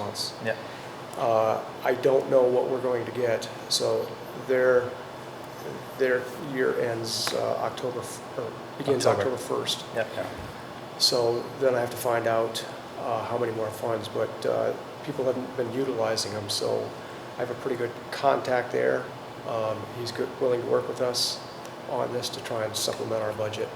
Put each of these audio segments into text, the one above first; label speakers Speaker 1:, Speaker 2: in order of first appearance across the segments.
Speaker 1: else.
Speaker 2: Yeah.
Speaker 1: Uh, I don't know what we're going to get, so their, their year ends uh, October, f- or begins
Speaker 2: October.
Speaker 1: October 1st.
Speaker 2: Yep.
Speaker 1: So then I have to find out uh, how many more funds, but uh, people haven't been utilizing them, so I have a pretty good contact there. Um, He's good, willing to work with us on this to try and supplement our budget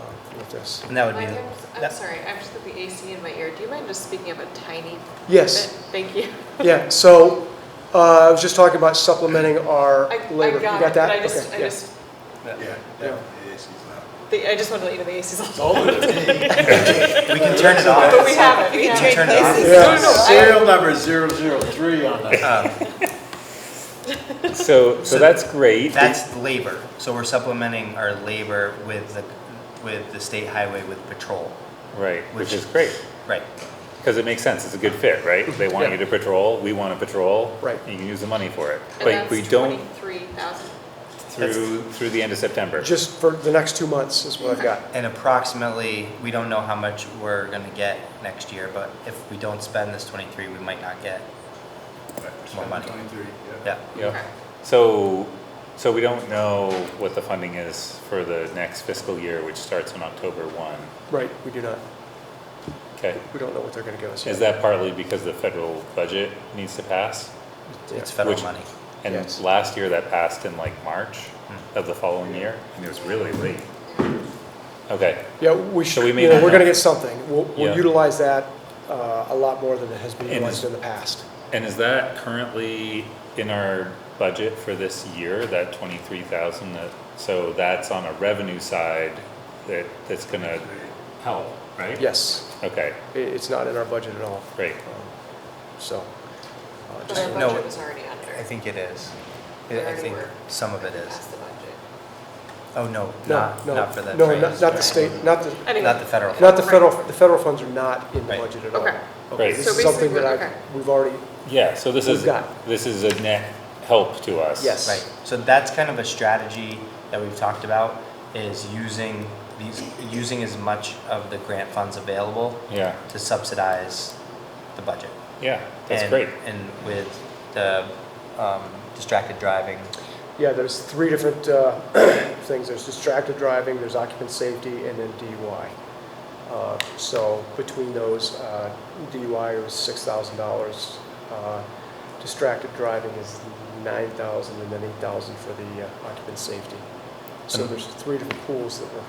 Speaker 1: uh, with this.
Speaker 2: And that would
Speaker 3: Mike,
Speaker 2: be,
Speaker 3: I'm I'm
Speaker 2: that-
Speaker 3: sorry, I've just got the AC in my ear. Do you mind just speaking up a tiny
Speaker 1: Yes.
Speaker 3: bit? Thank you.
Speaker 1: Yeah, so uh, I was just talking about supplementing our
Speaker 3: I- I
Speaker 1: labor. You
Speaker 3: got it,
Speaker 1: that?
Speaker 3: but I just,
Speaker 1: Okay,
Speaker 3: I
Speaker 1: yeah.
Speaker 3: just,
Speaker 4: Yeah,
Speaker 1: Yeah.
Speaker 4: it is, it's
Speaker 3: the- I just wanted to let you know the AC's on.
Speaker 2: Oh,
Speaker 4: not.
Speaker 2: we can turn it off.
Speaker 3: But we have it, we
Speaker 5: We
Speaker 3: have
Speaker 2: Can you
Speaker 3: it.
Speaker 2: turn it off?
Speaker 5: places.
Speaker 1: Yeah.
Speaker 3: No, no, I-
Speaker 4: Serial number 003 on that.
Speaker 6: Uh,
Speaker 2: Um,
Speaker 6: So,
Speaker 2: So
Speaker 6: so that's great.
Speaker 2: That's labor, so we're supplementing our labor with the, with the state highway with patrol,
Speaker 6: Right, which
Speaker 2: which-
Speaker 6: is great,
Speaker 2: right?
Speaker 6: because it makes sense, it's a good fit, right? They want you to patrol, we want to patrol.
Speaker 1: Right.
Speaker 6: And you can use the money for it.
Speaker 3: And
Speaker 6: But we
Speaker 3: that's
Speaker 6: don't
Speaker 3: 23,000.
Speaker 6: through, through the end of September.
Speaker 1: Just for the next two months is what I've got.
Speaker 2: And approximately, we don't know how much we're gonna get next year, but if we don't spend this twenty-three, we might not get, More money.
Speaker 4: 23,
Speaker 2: yeah.
Speaker 6: Yeah.
Speaker 3: Okay.
Speaker 6: So, so we don't know what the funding is for the next fiscal year, which starts on October one.
Speaker 1: Right, we do not,
Speaker 6: Okay,
Speaker 1: we don't know what they're going to give us.
Speaker 6: is
Speaker 1: yet.
Speaker 6: that partly because the federal budget needs to pass?
Speaker 2: It's
Speaker 1: Yeah.
Speaker 2: federal
Speaker 6: Which-
Speaker 2: money.
Speaker 6: And
Speaker 1: Yes.
Speaker 6: last year that passed in like March of the following year, and it was really late. Okay,
Speaker 1: Yeah, we should,
Speaker 6: we may
Speaker 1: you know,
Speaker 6: not
Speaker 1: we're going to
Speaker 6: know.
Speaker 1: get something. We'll
Speaker 6: Yeah.
Speaker 1: we'll utilize that uh, a lot more than it has been
Speaker 6: And
Speaker 1: utilized
Speaker 6: is-
Speaker 1: in the past.
Speaker 6: And is that currently in our budget for this year, that twenty-three thousand, that, so that's on a revenue side that, that's gonna help, right?
Speaker 1: Yes,
Speaker 6: Okay,
Speaker 1: i- it's not in our budget at all, Um,
Speaker 6: great,
Speaker 1: so. uh,
Speaker 3: But
Speaker 1: just-
Speaker 3: our
Speaker 2: No.
Speaker 3: budget was already under.
Speaker 2: I think it is.
Speaker 3: We
Speaker 2: I I
Speaker 3: already
Speaker 2: think
Speaker 3: were
Speaker 2: some of it is.
Speaker 3: Past the budget.
Speaker 2: Oh, no,
Speaker 1: No,
Speaker 2: not,
Speaker 1: no,
Speaker 2: not for that.
Speaker 1: no,
Speaker 2: train.
Speaker 1: not not the state, not the,
Speaker 3: Anyway.
Speaker 2: Not the federal.
Speaker 1: not the federal,
Speaker 3: Right.
Speaker 1: the federal funds are not in the
Speaker 2: Right.
Speaker 1: budget at all.
Speaker 3: Okay.
Speaker 6: Right.
Speaker 1: This
Speaker 3: So
Speaker 1: is something
Speaker 3: basically,
Speaker 1: that
Speaker 3: okay.
Speaker 1: I, we've already,
Speaker 6: yeah, so this
Speaker 1: We've
Speaker 6: is,
Speaker 1: got-
Speaker 6: this is a net help to us.
Speaker 1: Yes.
Speaker 2: Right, so that's kind of a strategy that we've talked about, is using these, using as much of the grant funds available
Speaker 6: Yeah,
Speaker 2: to subsidize the budget.
Speaker 6: yeah, that's
Speaker 2: And-
Speaker 6: great,
Speaker 2: And with the um, distracted driving,
Speaker 1: yeah, there's three different uh, things. There's distracted driving, there's occupant safety, and then DUI. Uh, So between those, uh, DUI was $6,000. uh, Distracted driving is 9,000 and then 8,000 for the uh, occupant safety. So
Speaker 6: And-
Speaker 1: there's three different pools that we're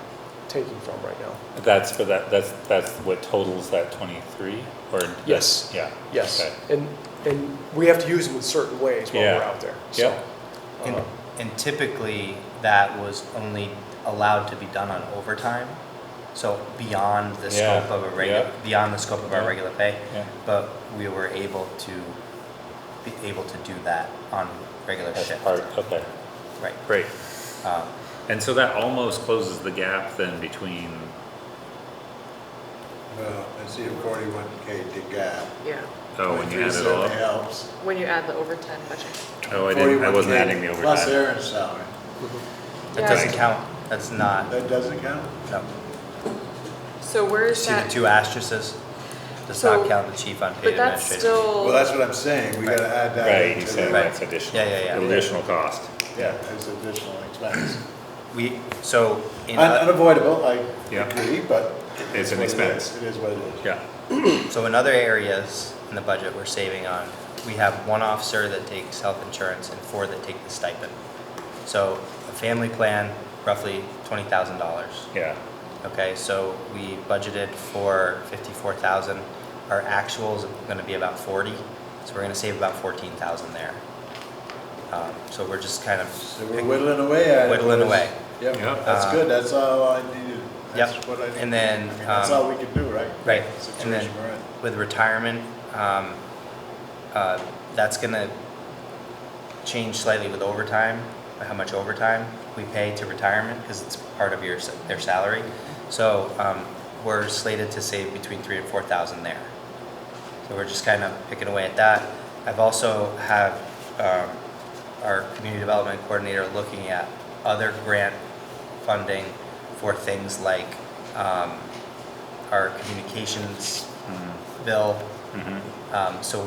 Speaker 1: taking from right now.
Speaker 6: that's for that, that's, that's what totals that twenty-three, or? that's-
Speaker 1: Yes.
Speaker 6: Yeah.
Speaker 1: Yes,
Speaker 6: okay.
Speaker 1: and, and we have to use them in certain ways while we're
Speaker 6: Yeah.
Speaker 1: out there, so.
Speaker 6: Yeah.
Speaker 2: and
Speaker 6: Uh-huh.
Speaker 1: uh,
Speaker 2: and typically, that was only allowed to be done on overtime, so beyond the
Speaker 6: Yeah,
Speaker 2: scope of a
Speaker 6: yeah.
Speaker 2: regular, beyond the scope of our
Speaker 6: Yeah.
Speaker 2: regular pay.
Speaker 6: Yeah.
Speaker 2: But we were able to, be able to do that on regular
Speaker 6: That's
Speaker 2: shift.
Speaker 6: part, okay,
Speaker 2: Right.
Speaker 6: great.
Speaker 2: Um,
Speaker 6: And so that almost closes the gap then between,
Speaker 4: Well, I see a 41K to gap.
Speaker 3: Yeah,
Speaker 6: oh, when you add it all up.
Speaker 4: 23 helps.
Speaker 3: when you add the overtime budget.
Speaker 6: Oh, I didn't, I wasn't
Speaker 4: 41K
Speaker 6: adding the
Speaker 4: Plus
Speaker 6: overtime.
Speaker 4: Aaron's salary.
Speaker 2: That
Speaker 3: Yeah.
Speaker 2: doesn't count, that's not,
Speaker 4: That doesn't count?
Speaker 2: no.
Speaker 3: So where is
Speaker 2: See the
Speaker 3: that?
Speaker 2: two asterisks? Does not
Speaker 3: So-
Speaker 2: count the chief on paid
Speaker 3: But that's
Speaker 2: administrative.
Speaker 3: still.
Speaker 4: Well, that's what I'm saying, we gotta add that.
Speaker 6: Right,
Speaker 4: into
Speaker 6: you said
Speaker 4: the-
Speaker 6: that's additional.
Speaker 2: Yeah, yeah, yeah.
Speaker 6: Additional cost.
Speaker 4: Yeah, it's additional expense.
Speaker 2: We, so, in,
Speaker 4: Un- Unavoidable, I
Speaker 6: Yeah.
Speaker 4: agree, but.
Speaker 6: It's an
Speaker 4: what it is.
Speaker 6: expense.
Speaker 4: It is what it is.
Speaker 6: Yeah,
Speaker 2: so in other areas in the budget we're saving on, we have one officer that takes health insurance and four that take the stipend. So a family plan, roughly twenty thousand dollars.
Speaker 6: yeah,
Speaker 2: Okay, so we budgeted for fifty-four thousand. Our actuals are gonna be about forty, so we're gonna save about fourteen thousand there. Um, so we're just kind of.
Speaker 4: So we're whittling away at it.
Speaker 2: Whittling away.
Speaker 4: Yep,
Speaker 6: Yeah.
Speaker 4: that's good, that's all I needed. That's
Speaker 2: Yep.
Speaker 4: what I needed.
Speaker 2: And then,
Speaker 4: I mean, That's
Speaker 2: um,
Speaker 4: all we can do, right?
Speaker 2: Right, and then
Speaker 4: Situation we're in.
Speaker 2: with retirement, um, uh, that's gonna change slightly with overtime, how much overtime we pay to retirement, because it's part of your, s- their salary. So, um, we're slated to save between three and four thousand there. So we're just kind of picking away at that. I've also have, um, our community development coordinator looking at other grant funding for things like, um, our communications bill. Um, so